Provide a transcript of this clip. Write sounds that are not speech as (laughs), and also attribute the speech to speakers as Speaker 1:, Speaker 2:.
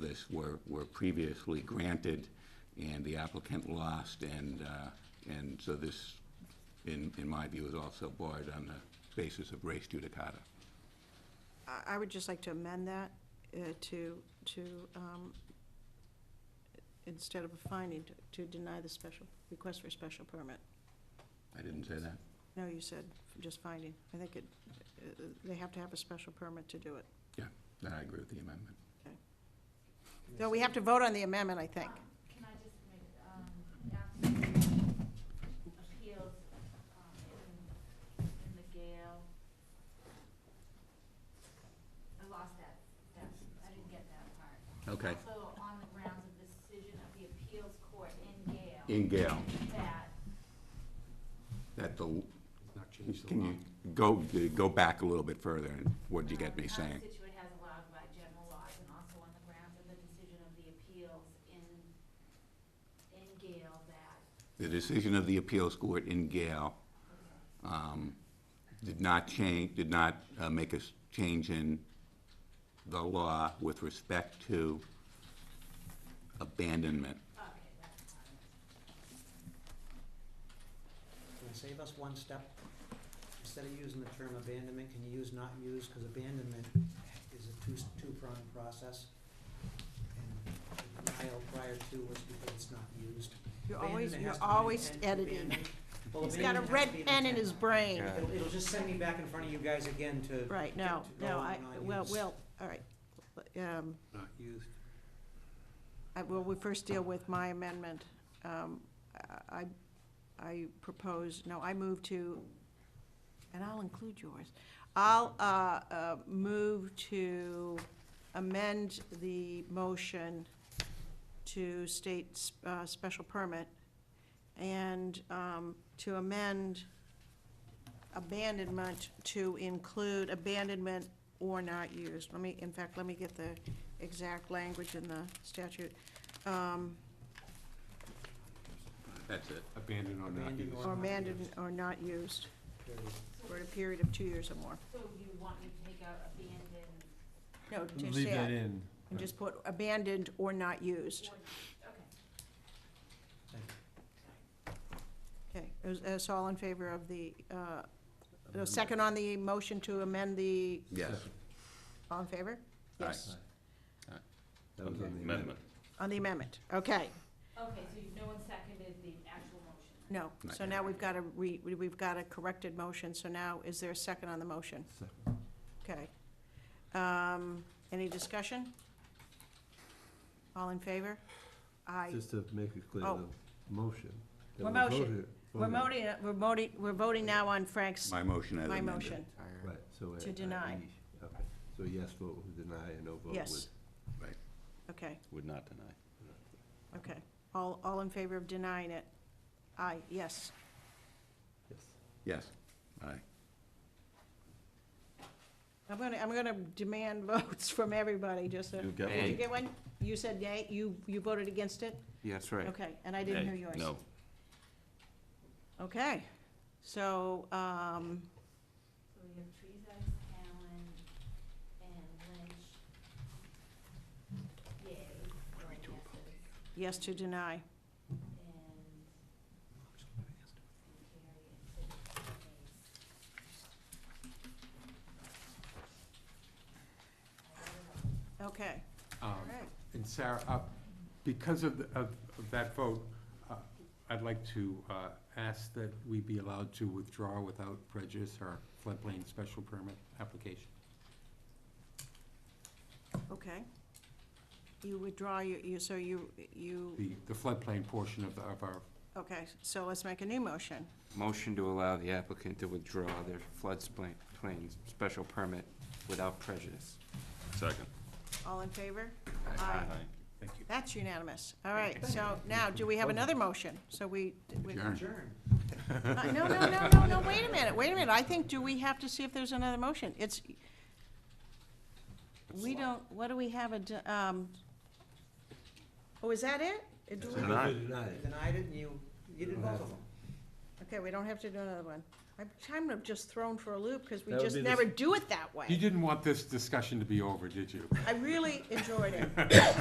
Speaker 1: this were, were previously granted, and the applicant lost, and, uh, and so this, in, in my view, is also barred on the basis of race judicata.
Speaker 2: I- I would just like to amend that uh, to, to, um, instead of a finding, to- to deny the special, request for special permit.
Speaker 1: I didn't say that?
Speaker 2: No, you said just finding. I think it, uh, they have to have a special permit to do it.
Speaker 1: Yeah, then I agree with the amendment.
Speaker 2: No, we have to vote on the amendment, I think.
Speaker 3: Can I just make, um, after appeals, um, in, in the Gale? I lost that, that, I didn't get that part.
Speaker 1: Okay.
Speaker 3: So on the grounds of the decision of the appeals court in Gale.
Speaker 1: In Gale,
Speaker 3: That,
Speaker 1: that the,
Speaker 4: Not changed the
Speaker 1: can
Speaker 4: law.
Speaker 1: you go, go back a little bit further, and what did you get me
Speaker 3: um, how
Speaker 1: saying?
Speaker 3: Situate has allowed by general laws and also on the grounds of the decision of the appeals in, in Gale that,
Speaker 1: The decision of the appeals court in Gale um, did not change, did not uh, make a s- change in the law with respect to abandonment.
Speaker 3: okay, that's fine.
Speaker 4: Can you save us one step? Instead of using the term abandonment, can you use not use, because abandonment is a two, two-pronged process. And denial prior to was because it's not used.
Speaker 2: You're always,
Speaker 4: Abandonment
Speaker 2: you're
Speaker 4: has to be
Speaker 2: always
Speaker 4: intent to
Speaker 2: editing.
Speaker 4: abandon. Well,
Speaker 2: He's got a
Speaker 4: abandonment has
Speaker 2: red
Speaker 4: to be an
Speaker 2: pen in
Speaker 4: intent.
Speaker 2: his brain.
Speaker 5: Yeah.
Speaker 4: It'll, it'll just send me back in front of you guys again to.
Speaker 2: Right, no,
Speaker 4: to go
Speaker 2: no, I,
Speaker 4: not
Speaker 2: well,
Speaker 4: used.
Speaker 2: well, all right. Um,
Speaker 4: Not used.
Speaker 2: I- Well, we first deal with my amendment. Um, I, I propose, no, I move to, and I'll include yours. I'll uh, uh, move to amend the motion to state uh, special permit and um, to amend abandonment to include abandonment or not used. Let me, in fact, let me get the exact language in the statute. Um,
Speaker 1: That's it.
Speaker 5: Abandoned or not
Speaker 4: Abandoned
Speaker 5: used.
Speaker 2: Or abandoned or not used
Speaker 4: Period.
Speaker 2: for a period of two years or more.
Speaker 3: So you want me to take out abandoned
Speaker 2: No, just
Speaker 5: Leave that
Speaker 2: add,
Speaker 5: in.
Speaker 2: and just put abandoned or not used.
Speaker 3: or, okay.
Speaker 2: Okay, is, is all in favor of the, uh, the second on the motion to amend the,
Speaker 1: Yes.
Speaker 2: all in favor?
Speaker 1: Aye.
Speaker 2: Yes,
Speaker 5: That was on the
Speaker 4: Okay.
Speaker 5: amendment.
Speaker 2: on the amendment, okay,
Speaker 3: Okay, so you- no one seconded the actual motion?
Speaker 2: no. So
Speaker 1: Right.
Speaker 2: now we've got a, we, we've got a corrected motion, so now is there a second on the motion?
Speaker 5: Second.
Speaker 2: Okay. Um, any discussion? All in favor? Aye.
Speaker 5: Just to make it clear,
Speaker 2: Oh.
Speaker 5: the motion. that
Speaker 2: We're
Speaker 5: we
Speaker 2: motion-
Speaker 5: voted-
Speaker 2: We're
Speaker 5: voted-
Speaker 2: voting, we're voting, we're voting now on Frank's,
Speaker 1: My motion as
Speaker 2: my
Speaker 1: amended.
Speaker 2: motion.
Speaker 5: Right, so.
Speaker 2: To
Speaker 5: I- I-
Speaker 2: deny.
Speaker 5: Okay, so yes vote would deny and no vote would.
Speaker 2: Yes.
Speaker 1: Right.
Speaker 2: Okay,
Speaker 6: Would not deny.
Speaker 2: okay. All, all in favor of denying it? Aye, yes.
Speaker 5: Yes.
Speaker 1: Yes, aye.
Speaker 2: I'm gonna, I'm gonna demand (laughs) votes from everybody, just so.
Speaker 6: You got
Speaker 2: Did you
Speaker 6: one?
Speaker 2: get one? You said yay, you, you voted against it?
Speaker 5: Yeah, that's right.
Speaker 2: Okay, and I didn't hear
Speaker 6: Nay.
Speaker 2: yours.
Speaker 6: No.
Speaker 2: Okay, so, um,
Speaker 3: So we have Trezak, Allen, and Lynch. Yay, or yeses,
Speaker 2: yes to deny.
Speaker 3: and Carrie and Sid, nays. I got it all.
Speaker 2: Okay,
Speaker 7: Um,
Speaker 2: all right.
Speaker 7: And Sarah, uh, because of, the- of of that vote, uh, I'd like to uh, ask that we be allowed to withdraw without prejudice our floodplain special permit application.
Speaker 2: Okay. You withdraw your, you, so you, you,
Speaker 7: The the floodplain portion of, of our,
Speaker 2: okay, so let's make a new motion.
Speaker 8: Motion to allow the applicant to withdraw their floodplain plain special permit without prejudice.
Speaker 6: Second.
Speaker 2: All in favor?
Speaker 7: (laughs)
Speaker 6: Aye.
Speaker 7: thank you.
Speaker 2: That's unanimous. All right, so now, do we have another motion? So we, we-
Speaker 1: Adjourn.
Speaker 4: Adjourn.
Speaker 2: Uh, no, no, no, no, no, wait a minute, wait a minute. I think, do we have to see if there's another motion? It's, we don't, what do we have, a d- um, oh, is that it? It- do we-
Speaker 5: You
Speaker 6: Deny.
Speaker 5: Denied.
Speaker 4: You Denied it and you, you did both of them.
Speaker 2: Okay, we don't have to do another one. I'm kind of just thrown for a loop because we
Speaker 5: That would
Speaker 2: just
Speaker 5: be the-
Speaker 2: never do it that way.
Speaker 7: You didn't want this discussion to be over, did you?
Speaker 2: I really enjoyed it.